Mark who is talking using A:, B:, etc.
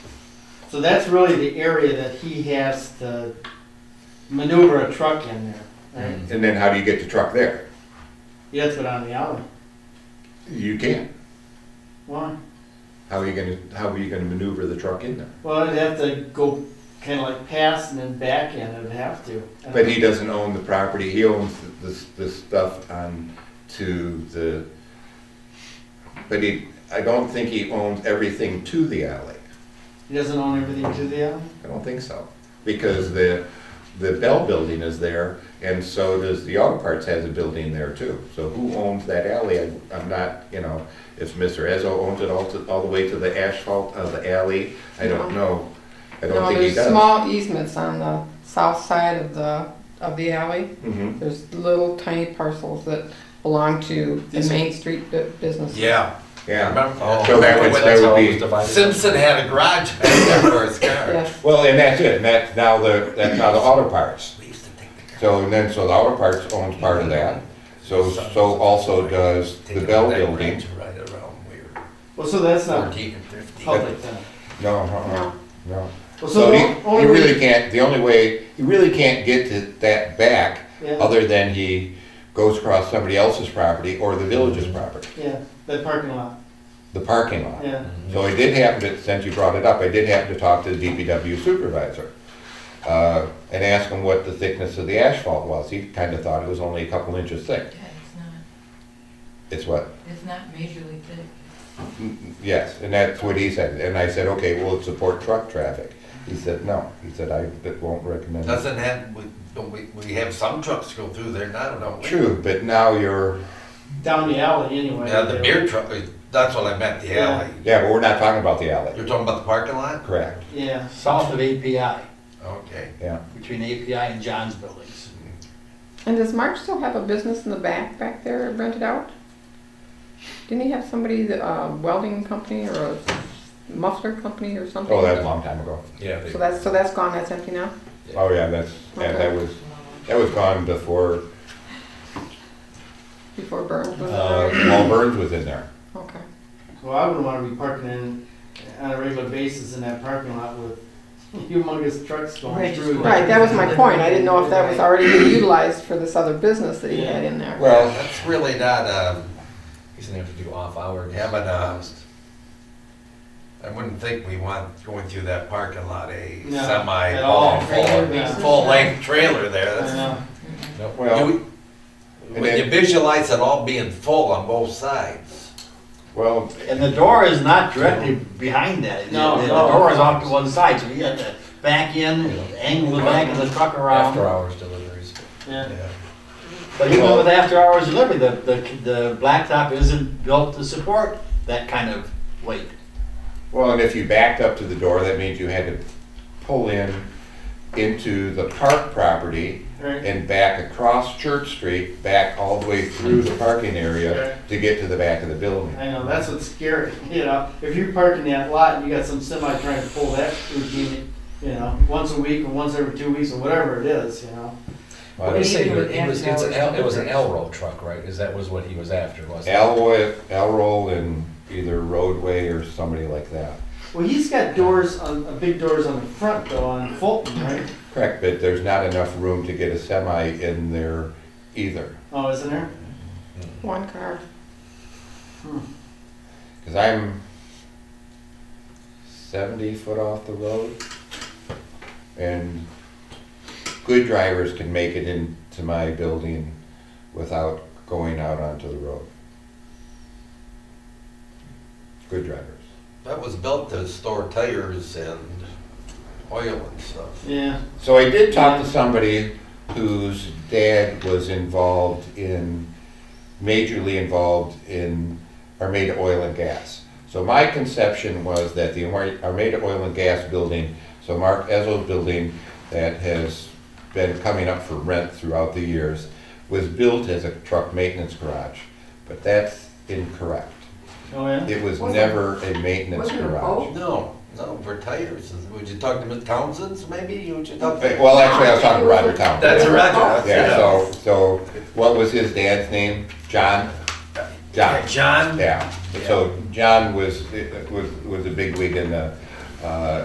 A: So that's really the area that he has to maneuver a truck in there, right?
B: And then how do you get the truck there?
A: You have to put on the alley.
B: You can't.
A: Why?
B: How are you gonna, how are you gonna maneuver the truck in there?
A: Well, it'd have to go kind of like past and then back in, it'd have to.
B: But he doesn't own the property, he owns this, this stuff on to the, but he, I don't think he owns everything to the alley.
A: He doesn't own everything to the alley?
B: I don't think so, because the, the Bell Building is there, and so does the Auto Parts has a building there too. So who owns that alley? I- I'm not, you know, if Mr. Ezzo owns it all to, all the way to the asphalt of the alley, I don't know. I don't
C: No,
B: think he
C: there's
B: does.
C: small easements on the south side of the, of the alley.
B: Mhm.
C: There's little tiny parcels that belong to the
D: These-
C: Main Street bu- business.
D: Yeah.
B: Yeah,
D: Remember?
E: Oh.
B: So that would-
D: When
B: that would
E: Always
B: be,
E: divided.
D: Simpson had a garage back there for his car.
C: Yes,
B: well, and that's it, and that's now the, that's now the Auto Parts.
D: We used to take the car.
B: So, and then, so the Auto Parts owns part of that, so, so also does
D: Take
B: the
D: it
B: Bell
D: back
B: Building.
D: range Right around we were
A: Well, so that's not
D: fourteen and fifteen.
A: public then.
B: No, uh-uh, no.
A: Well,
B: So
A: the
B: he,
A: only
B: he
A: re-
B: really can't, the only way, he really can't get to that back
A: Yeah,
B: other than he goes across somebody else's property or the village's property,
A: yeah, that parking lot,
B: the parking lot.
A: yeah.
B: So I did happen to, since you brought it up, I did happen to talk to the DPW supervisor uh, and ask him what the thickness of the asphalt was. He kind of thought it was only a couple inches thick.
F: Yeah, it's not,
B: It's what,
F: it's not majorly thick.
B: yes, and that's what he said. And I said, okay, will it support truck traffic? He said, no. He said, I that won't recommend it.
D: Doesn't have, we, we, we have some trucks go through there now, don't we?
B: True, but now you're
A: Down the alley anyway.
D: Yeah, the
A: They-
D: beer truck, is- that's what I meant, the
A: Yeah.
D: alley.
B: Yeah, but we're not talking about the
D: You're
B: alley.
D: talking about the parking lot?
B: Correct,
A: Yeah,
G: south of API,
D: Okay.
B: yeah.
G: between API and John's buildings.
C: and does Mark still have a business in the back, back there rented out? Didn't he have somebody, that, uh, welding company or a muffler company or something?
B: Oh, that was a long time ago.
D: Yeah.
C: So that's, so that's gone, that's empty now?
B: Oh, yeah, that's, yeah, that was, that was gone before,
C: Before Burns was
B: uh,
C: there?
B: Paul Burns was in there.
C: Okay.
A: well, I wouldn't wanna be parking in, on a regular basis in that parking lot with humongous trucks going
F: Right, just
A: through.
F: like-
C: Right, that was my point. I didn't know if that was already being utilized for this other business that he had in there.
D: Well,
B: Well,
D: that's really not, um, he's gonna have to do off hour, having,
A: uh,
D: um, I wouldn't think we want going through that parking lot, a
A: No,
D: semi,
A: at all.
D: full,
A: Yeah.
D: full length trailer there,
A: I
D: that's.
A: know.
D: no.
B: Well,
D: You-
B: and
D: When you
B: then-
D: visualize it all being full on both sides.
B: well,
G: And the door is not directly behind that. The-
A: No,
G: The the
A: no.
G: door is off to one side, so you have to back in, angle the back of the truck
A: Um,
D: After
G: around.
D: hours deliveries.
A: Yeah,
G: But even with after hours delivery, the, the, the blacktop isn't built to support that kind of weight.
B: well, and if you backed up to the door, that means you had to pull in into the park property
A: right.
B: and back across Church Street, back all the way through the parking area to get to the back of the building.
A: I know, that's what's scary, you know, if you park in that lot and you got some semi trying to pull that routine, you know, once a week or once every two weeks or whatever it is, you know.
F: Well,
E: You're
F: you
E: saying
F: do it
E: it was,
F: after
E: it's an L,
F: hours.
E: it was an L roll truck, right? Is that was what he was after, wasn't it?
B: Alroy, Alroy and either roadway or somebody like that.
A: Well, he's got doors on, uh, big doors on the front though, on Fulton, right?
B: Correct, but there's not enough room to get a semi in there either.
A: Oh, isn't there?
C: One car.
B: Because I'm 70 foot off the road, and good drivers can make it into my building without going out onto the road. Good drivers.
D: That was built to store tires and oil and stuff.
A: Yeah,
B: So I did talk to somebody whose dad was involved in, majorly involved in Armada Oil and Gas. So my conception was that the Arma- Armada Oil and Gas building, so Mark Ezell's building that has been coming up for rent throughout the years, was built as a truck maintenance garage, but that's incorrect.
A: oh, yeah.
B: It was
F: Was it-
B: never a maintenance
F: was it a
B: garage.
F: boat?
D: No, no, for tires. Would you talk to Ms. Townsend's maybe? Would you talk to?
B: Okay, Well, actually, I was talking to Roger Town.
D: That's right.
F: Oh,
B: Yeah, so, so what was his dad's name? John? John,
D: John
B: yeah. So John was, was, was a big wig in the, uh,